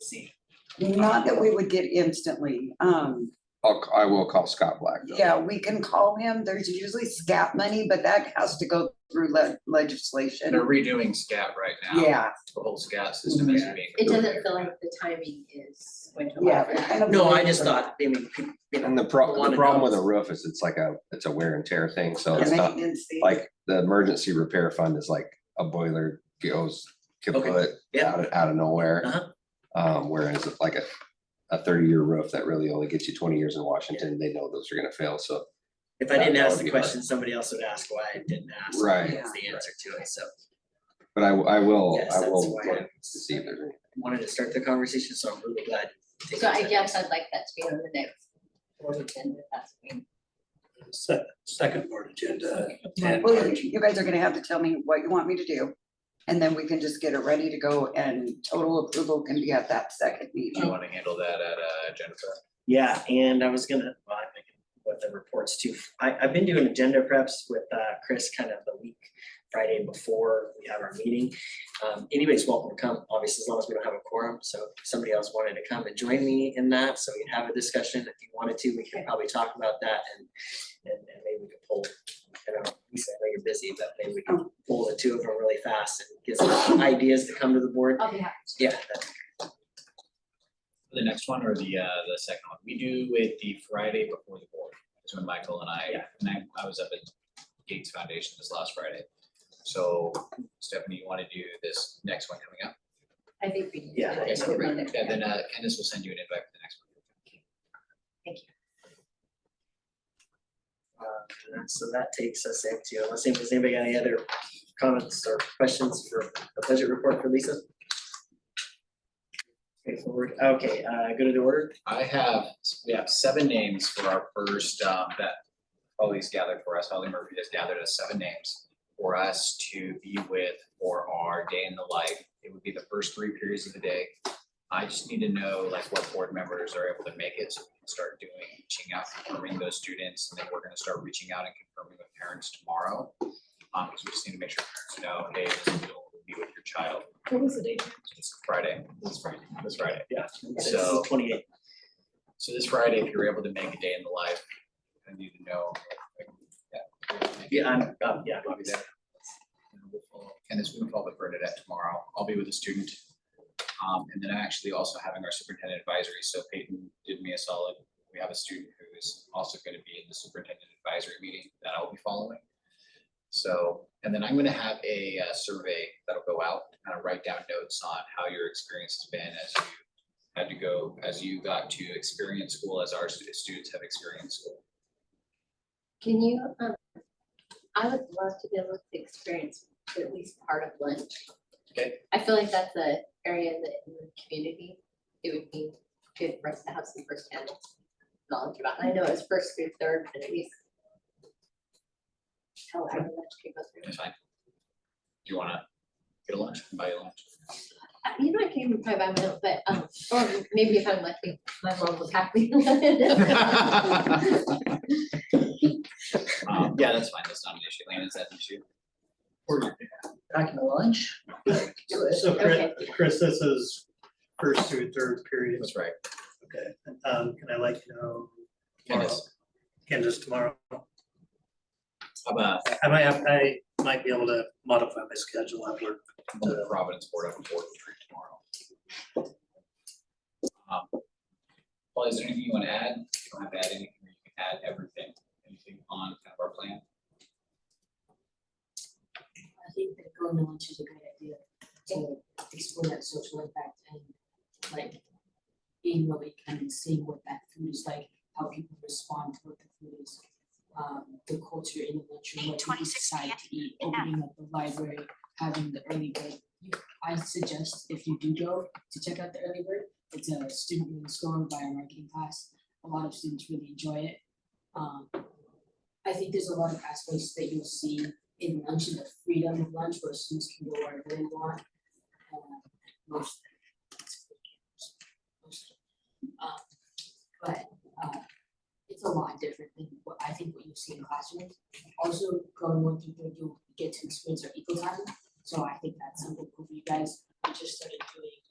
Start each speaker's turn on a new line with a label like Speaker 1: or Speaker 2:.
Speaker 1: see.
Speaker 2: Not that we would get instantly, um,
Speaker 3: I'll, I will call Scott Black. though.
Speaker 2: yeah, we can call him, there's usually scat money, but that has to go through le- legislation.
Speaker 1: They're redoing scat right now.
Speaker 2: Yeah,
Speaker 1: The whole scat system is
Speaker 4: Yeah.
Speaker 1: being.
Speaker 5: It doesn't feel like the timing is going to
Speaker 2: yeah.
Speaker 5: allow for
Speaker 2: we're
Speaker 5: that.
Speaker 2: kind of-
Speaker 4: No, I just thought, I mean, people, you know,
Speaker 3: And the pro,
Speaker 4: Wanna
Speaker 3: the problem
Speaker 4: know.
Speaker 3: with a roof is it's like a, it's a wear and tear thing, so
Speaker 2: The
Speaker 3: it's not,
Speaker 2: maintenance fee.
Speaker 3: like, the emergency repair fund is like a boiler goes
Speaker 4: Okay,
Speaker 3: kaput
Speaker 4: yeah.
Speaker 3: out of, out of
Speaker 4: Uh-huh.
Speaker 3: nowhere. Um, whereas it's like a, a thirty-year roof that really only gets you twenty years in Washington, they know those are gonna fail, so.
Speaker 4: if I didn't
Speaker 3: That
Speaker 4: ask
Speaker 3: would
Speaker 4: the
Speaker 3: be hard.
Speaker 4: question, somebody else would ask why I didn't ask.
Speaker 3: Right.
Speaker 4: That's the answer to it, so.
Speaker 3: But I, w- I will,
Speaker 4: Yes,
Speaker 3: I
Speaker 4: that's
Speaker 3: will
Speaker 4: why
Speaker 3: look
Speaker 4: I
Speaker 3: to see if there's any.
Speaker 4: Wanted to start the conversation, so I'm really glad. you did
Speaker 5: So I
Speaker 4: that.
Speaker 5: guess I'd like that to be on the next board agenda, if that's.
Speaker 6: Se- second board agenda. and
Speaker 2: Well, you- you guys are gonna have to tell me what you want me to do, and then we can just get it ready to go and total approval can be at that second
Speaker 1: Do you
Speaker 2: meeting.
Speaker 1: wanna handle that at uh Jennifer?
Speaker 4: Yeah, and I was gonna, well, I'm thinking what the reports too. I, I've been doing agenda preps with, uh, Chris kind of the week, Friday before we have our meeting. Um, anybody's welcome to come, obviously, as long as we don't have a quorum, so if somebody else wanted to come and join me in that, so we can have a discussion. If you wanted to, we can probably talk about that and, and, and maybe we could pull, I don't know, Lisa, I know you're busy, but maybe we can pull the two of them really fast and get some ideas to come to the board.
Speaker 5: I'll be happy.
Speaker 4: Yeah, that-
Speaker 1: The next one or the uh the second one? We do it the Friday before the board. That's when Michael and I,
Speaker 4: Yeah.
Speaker 1: and I, I was up at Gates Foundation this last Friday. So Stephanie, you wanna do this next one coming up?
Speaker 5: I think we need to.
Speaker 4: Yeah,
Speaker 5: do
Speaker 4: that's
Speaker 5: it
Speaker 4: what
Speaker 5: on
Speaker 4: we-
Speaker 5: the next
Speaker 1: And
Speaker 5: one.
Speaker 1: then uh Candace will send you an invite for the next one.
Speaker 4: Uh, and so that takes us into, unless anybody- has anybody got any other comments or questions for the budget report for Lisa? Straightforward, okay, uh, go to the order,
Speaker 1: I have, we have seven names for our first, um, that Holly's gathered for us, Holly Murphy has gathered us seven names for us to be with for our day in the life. It would be the first three periods of the day. I just need to know like what board members are able to make it, so we can start doing, reaching out, confirming those students, and then we're gonna start reaching out and confirming with parents tomorrow. Um, because we just need to make sure parents know, hey, this is you'll be with your child. What was the date? It's Friday. This Friday. This Friday, yeah. So
Speaker 4: so twenty-eight,
Speaker 1: so this Friday, if you're able to make a day in the life, I need to know. like, that.
Speaker 4: yeah, I'm, um, yeah,
Speaker 1: I'll be
Speaker 4: obviously,
Speaker 1: there. And we'll follow- And this will follow up with Bernadette tomorrow. I'll be with a student. Um, and then I'm actually also having our superintendent advisory. So Peyton did me a solid. We have a student who is also going to be in the superintendent advisory meeting that I'll be following. So, and then I'm going to have a uh, survey that'll go out, kind of write down notes on how your experience has been as you had to go, as you got to experience school, as our stu- students have experienced school.
Speaker 5: Can you, um, I would love to be able to experience at least part of lunch.
Speaker 1: Okay.
Speaker 5: I feel like that's a area that in the community, it would be good for us to have some firsthand knowledge about. And I know it's first through third, but at least. How I would like to go through.
Speaker 1: It's fine. Do you wanna get a lunch, buy you lunch?
Speaker 5: Uh, You know, I can even probably buy my own, but, um, or maybe if I'm lucky, my mom will pack me. Well,
Speaker 1: Um, yeah, that's fine, that's not an issue, Lana, is that an issue?
Speaker 4: back in the lunch.
Speaker 7: So Chris,
Speaker 5: Okay.
Speaker 7: Chris, this is first through third period,
Speaker 1: That's right,
Speaker 7: okay, um, can I like, you know,
Speaker 1: Candace,
Speaker 7: Candace tomorrow?
Speaker 1: how about
Speaker 7: I might have, I might be able to modify my schedule, I've worked,
Speaker 1: the Providence Board up in Fort Street tomorrow? Um, Paul, is there anything you wanna add? You don't have to add anything, or you can add everything, anything on kind of our plan?
Speaker 8: I think that going to lunch is a great idea to explore that social impact and like being where we can and seeing what that food is like, how people respond to what the food is. Um, the culture in the lunchroom, what people decide to eat, opening up the library, having the early bird. You- I suggest if you do go to check out the early bird, it's a student run store by a marketing class. A lot of students really enjoy it. Um, I think there's a lot of aspects that you'll see in lunch and the freedom of lunch where students can go wherever they want. uh, Most. most, uh, But uh, it's a lot different than what I think what you see in classrooms. Also, going one through third, you'll get to experience our eco time. So I think that's something cool for you guys. We just started doing uh,